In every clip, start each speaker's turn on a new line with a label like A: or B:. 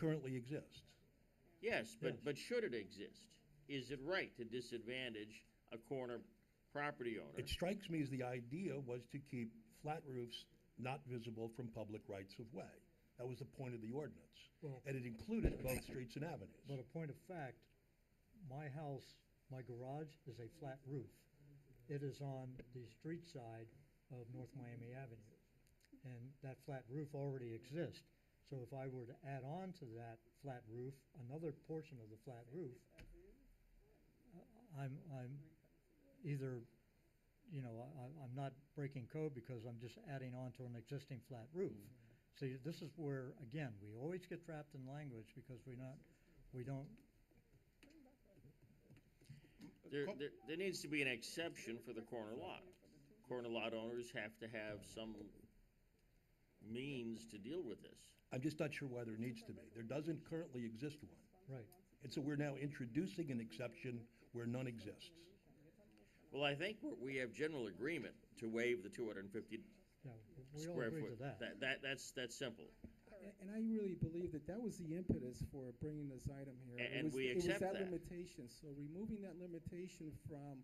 A: currently exists.
B: Yes, but,
A: Yes.
B: but should it exist? Is it right to disadvantage a corner property owner?
A: It strikes me as the idea was to keep flat roofs not visible from public rights of way. That was the point of the ordinance.
C: Well-
A: And it included both streets and
C: But
A: avenues.
C: a point of fact, my house, my garage is a flat roof. It is on the street side of North Miami Avenue. And that flat roof already exists. So if I were to add on to that flat roof, another portion of the flat roof, uh, I'm, I'm either, you know, I, I- I'm not breaking code because I'm just adding on to an existing flat roof. See, this is where, again, we always get trapped in language because we're not, we don't
B: There, there, there needs to be an exception for the corner lot. Corner lot owners have to have some means to deal with this.
A: I'm just not sure why there needs to be. There doesn't currently exist one.
C: Right.
A: And so we're now introducing an exception where none exists.
B: Well, I think we're- we have general agreement to waive the two hundred and fifty
C: Yeah, w- we all
B: square
C: agree to
B: foot.
C: that.
B: That, that, that's, that's simple.
D: A- And I really believe that that was the impetus for bringing this item here.
B: A-
D: It
B: and
D: was-
B: we accept
D: It was that
B: that.
D: limitation, so removing that limitation from,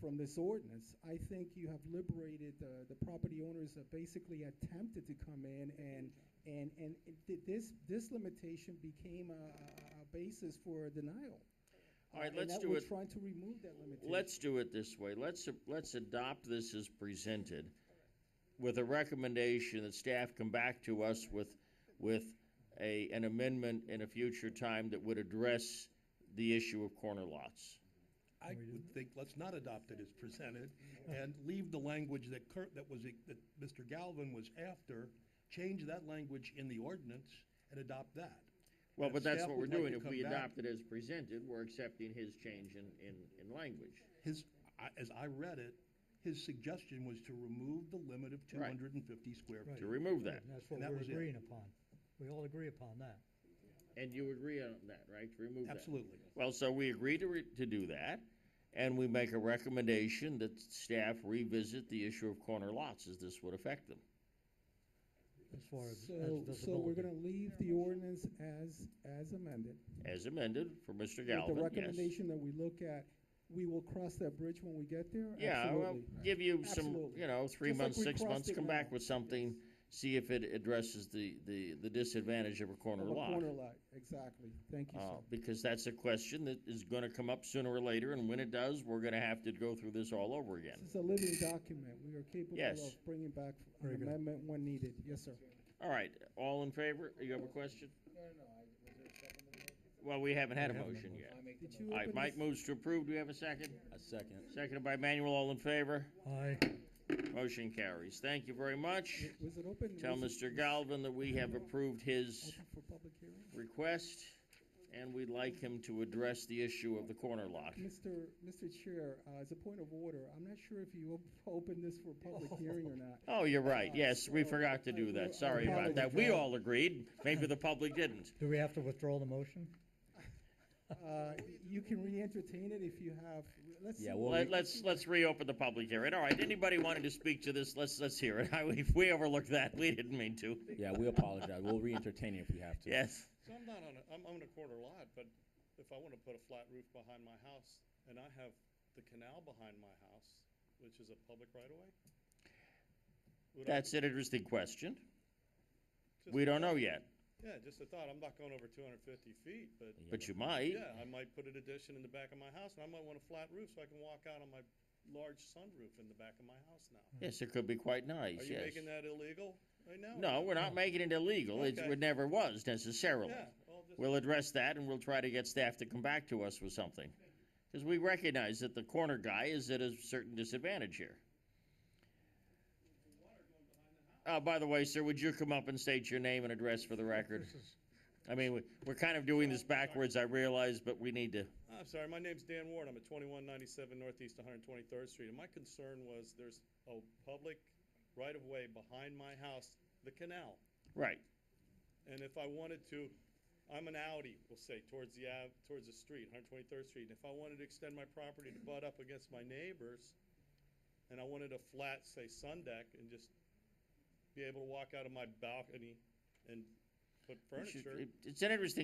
D: from this ordinance, I think you have liberated the, the property owners that basically attempted to come in and, and, and it- th- this, this limitation became a, a- a basis for denial.
B: All right,
D: Uh, and
B: let's
D: that
B: do
D: we're
B: it-
D: trying to remove that limitation.
B: Let's do it this way. Let's, let's adopt this as presented with a recommendation that staff come back to us with, with a, an amendment in a future time that would address the issue of corner lots.
A: I
C: we
A: would think, let's not adopt it as presented and leave the language that Kurt, that was, that Mr. Galvin was after, change that language in the ordinance and adopt that.
B: Well,
A: And
B: but
A: if
B: that's
A: staff
B: what we're
A: would like
B: doing.
A: to
B: If
A: come
B: we
A: back-
B: adopt it as presented, we're accepting his change in, in, in language.
A: His, I- as I read it, his suggestion was to remove the limit of two
B: Right.
A: hundred and fifty square
C: Right.
A: feet.
B: To remove that.
C: And that's what
A: And that
C: we're
A: was it.
C: agreeing upon. We all agree upon that.
B: And you agree on that, right? To remove that?
A: Absolutely.
B: Well, so we agree to, re- to do that, and we make a recommendation that staff revisit the issue of corner lots, as this would affect them.
C: As far as, as
D: So, so we're
C: visibility.
D: gonna leave the ordinance as, as amended.
B: As amended for Mr.
D: With the
B: Galvin, yes.
D: recommendation that we look at, we will cross that bridge when we get there?
B: Yeah, well,
D: Absolutely.
B: give you some,
D: Absolutely.
B: you know, three
D: Just like
B: months,
D: we
B: six
D: crossed
B: months,
D: it
B: come back
D: now.
B: with something, see if it addresses the, the, the disadvantage of a corner
D: Of a
B: lot.
D: Corner lot, exactly. Thank you,
B: Uh,
D: sir.
B: because that's a question that is gonna come up sooner or later, and when it does, we're gonna have to go through this all over again.
D: This is a living document. We are capable
B: Yes.
D: of bringing back
C: Very
D: an
C: good.
D: amendment when needed. Yes, sir.
B: All right, all in favor? You have a question? Well, we haven't had a motion yet.
D: Did you
B: All right,
D: open
B: Mike
D: this-
B: moves to approve. Do we have a second?
E: A second.
B: Seconded by Manuel. All in favor?
C: Aye.
B: Motion carries. Thank you very much.
D: w- Was it open?
B: Tell
D: was it
B: Mr. Galvin that we
F: uh,
B: have approved his
D: Open for public hearing?
B: request, and we'd like him to address the issue of the corner lot.
D: Mr. Mr. Chair, uh, as a point of order, I'm not sure if you op- opened this for public hearing or not.
B: Oh, you're right. Yes, we forgot to do that. Sorry about that. We all agreed. Maybe the public didn't.
C: Do we have to withdraw the motion?
D: Uh, You can re-entertain it if you have, let's see.
E: Yeah,
D: what-
E: well,
B: Let, let's, let's reopen the public hearing. All right, anybody wanted to speak to this, let's, let's hear it. I, we- we overlooked that. We didn't mean to.
E: yeah, we apologize. We'll re-entertain it if we have to.
B: Yes.
F: So I'm not on a, I'm on a quarter lot, but if I wanna put a flat roof behind my house, and I have the canal behind my house, which is a public right of way? would I-
B: That's an interesting question.
F: just
B: We
F: a
B: don't know
F: thought.
B: yet,
F: Yeah, just a thought, I'm not going over two hundred fifty feet, but,
B: but you might.
F: yeah, I might put an addition in the back of my house, and I might want a flat roof, so I can walk out on my large sunroof in the back of my house now.
B: Yes, it could be quite nice,
F: Are you
B: yes.
F: making that illegal right now?
B: No, we're not making it illegal. It,
F: Okay.
B: it never was necessarily.
F: Yeah, well, just,
B: We'll address that and we'll try to get staff to come back to us with something. Because we recognize that the corner guy is at a certain disadvantage here. Uh, by the way, sir, would you come up and state your name and address for the record? I mean, we, we're kind of doing this backwards, I realize, but we need to.
F: I'm sorry, my name's Dan Ward. I'm at 2197 Northeast 123rd Street. And my concern was there's a public right-of-way behind my house, the canal.
B: Right.
F: And if I wanted to, I'm an Audi, we'll say, towards the, ave- towards the street, 123rd Street. And if I wanted to extend my property to butt up against my neighbors, and I wanted a flat, say, sun deck, and just be able to walk out of my balcony and put
B: We should-
F: furniture.
B: it- It's an interesting